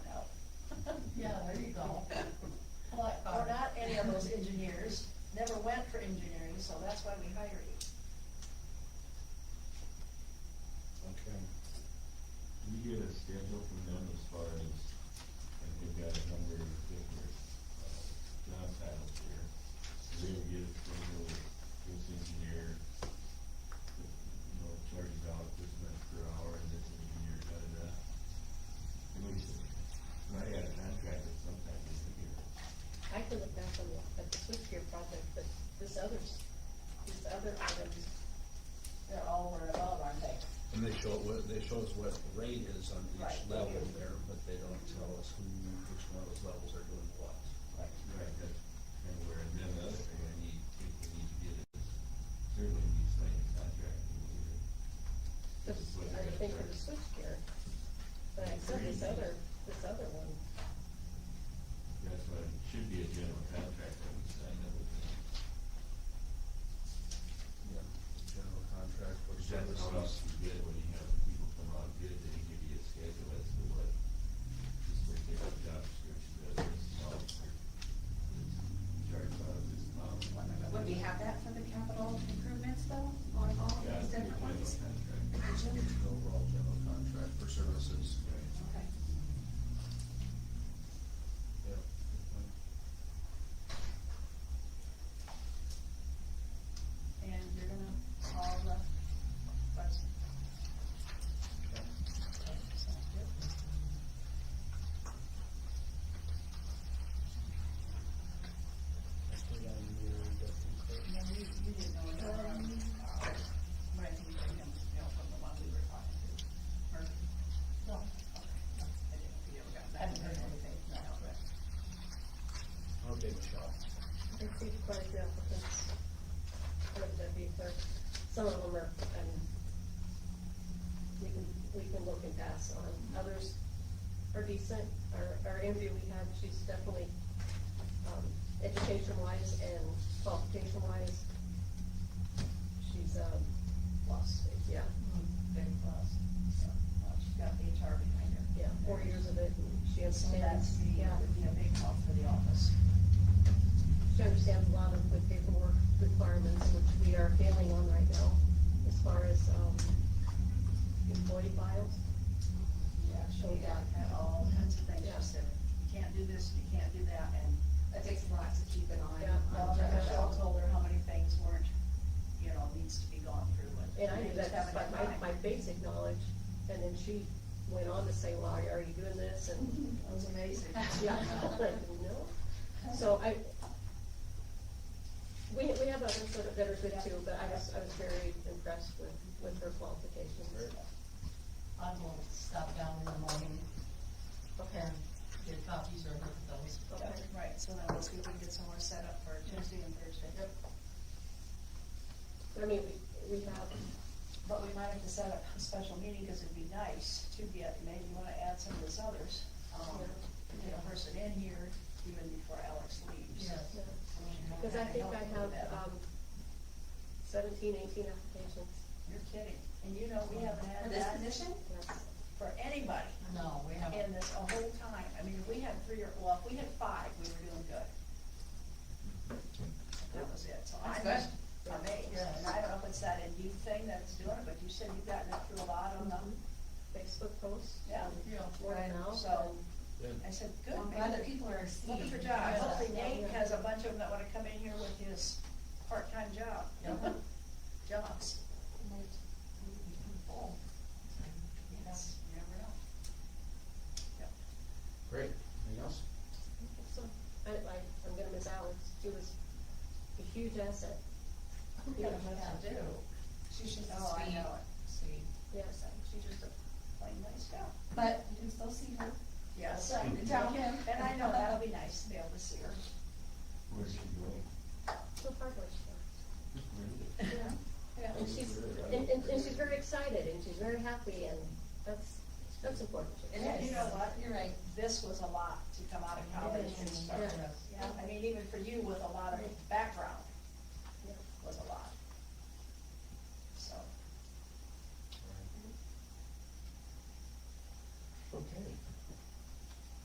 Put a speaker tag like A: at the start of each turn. A: of those engineers never went for engineering, so that's why we hire you.
B: Okay. Can you get a schedule from them as far as, like, they've got a number of different, uh, job titles here. So they would get a schedule, this engineer, you know, charges out this much per hour, and this engineer, da-da-da. At least, when I had a contract, it's sometimes it's a year.
C: I can look back on the- at the switchgear project, but this others, these other items,
A: They're all over above, aren't they?
D: And they show, what- they show us what the rate is on
A: Right.
D: each level there, but they don't tell us who, which one of those levels are doing what.
B: Right, that's kind of where, and then the other thing I need, think we need to get is, certainly need to sign a contract. and we need to-
C: the,
B: This is what they're
C: I
B: gonna
C: think for the
B: charge.
C: switchgear. But I said this other, this other one,
B: That's what, it should be a general contract that we sign up with them.
D: Yeah. General contract for
B: Because that's how else
D: services.
B: you get when you have people come out and bid, they give you a schedule as to what, this is what their job description is, this is all, it's charged out of this amount.
E: Would we have that for the capital improvements though, on all of
B: Yeah,
E: these
B: it's a
E: different
B: general
E: ones?
B: contract.
E: Did you?
D: Overall general contract for services.
B: Right.
E: Okay.
D: Yeah.
A: And you're gonna call the question. Okay, sounds good. And then you, you didn't know anything about, uh, when he bring him, you know, from the one we were talking to, or? No. Okay, no, I didn't, know if you ever got back or anything, no, but.
D: Okay, Michelle.
C: I see quite a few applicants for the deputy clerk. Some of them are, um, we can, we can look and pass on, others are decent. Our, our interview we had, she's definitely, um, education wise and qualification wise, she's, um, lost, yeah,
A: Big plus, so, well, she's got the HR behind her.
C: yeah, four years of it, and she
A: So that's
C: understands,
A: the,
C: yeah.
A: would be a big help for the office.
C: She understands a lot of the paperwork requirements, which we are failing on right now, as far as, um, employee files.
A: Yeah, she'll
C: Yeah.
A: got all kinds of things,
C: Yeah.
A: she said, you can't do this, you can't do that, and
E: That takes a lot to keep an eye
C: Yeah.
E: on.
A: Well, Michelle told her how many things weren't, you know, needs to be gone through and.
C: And I knew
A: they just
C: that, that's
A: haven't
C: like
A: had time.
C: my, my basic knowledge, and then she went on to say, well, are you doing this, and,
A: That was amazing.
C: yeah, I'm like, no. So I, we, we have others that are- that are good too, but I was, I was very impressed with, with her qualifications.
F: I will stop down in the morning
C: Okay,
F: and get copies or look at those.
C: okay.
A: Right, so then once we can get somewhere set up for Tuesday and Thursday.
C: I mean, we, we have
A: But we might have to set up a special meeting, because it'd be nice to get, maybe you wanna add some of those others, um, get a person in here even before Alex leaves.
F: Yes.
C: Because I think I have um, seventeen, eighteen applications.
A: You're kidding, and you know, we haven't
E: For
A: had
E: this
A: that
E: position?
A: for anybody
F: No, we haven't.
A: in this a whole time. I mean, if we had three or, well, if we had five, we were doing good. That was it, so I'm
E: That's
A: just
E: good.
A: amazed,
F: Yes.
A: and I don't know if it's that Indeed thing that's doing it, but you said you've gotten it through a lot on them,
C: um,
F: Mm-hmm.
C: Facebook posts.
A: Mm-hmm.
C: Um,
A: yeah.
F: Yeah.
C: More
A: Right,
C: now.
A: so,
D: Good.
A: I said, good,
F: I'm glad that
A: maybe
F: people are
A: they're
F: seeing.
A: looking for jobs.
F: Yeah.
A: Hopefully Nate
C: Yeah.
A: has a bunch of them that wanna come in here with his part-time job,
F: Yeah.
A: jobs. Yes, you never know. Yep.
D: Great. Anything else?
C: So, I, I, I'm gonna miss Alex. She was a huge asset.
A: We got a bunch to do.
E: She's just
A: Oh, I
E: sweet,
A: know it.
E: sweet.
C: Yes.
A: She's just a plain nice gal.
E: But you can still see her.
A: Yes.
E: Right, and tell him.
A: And I know that'll be nice to be able to see her.
B: Where's she going?
C: So far, where she
B: Where is it?
C: was.
A: Yeah.
C: And she's, and, and, and she's very excited and she's very happy and that's, that's important.
F: It
A: And
F: is.
A: you know what?
F: You're right.
A: This was a lot to come out of college and
F: It is.
A: start.
F: Yeah.
A: Yeah, I mean, even for you with a lot of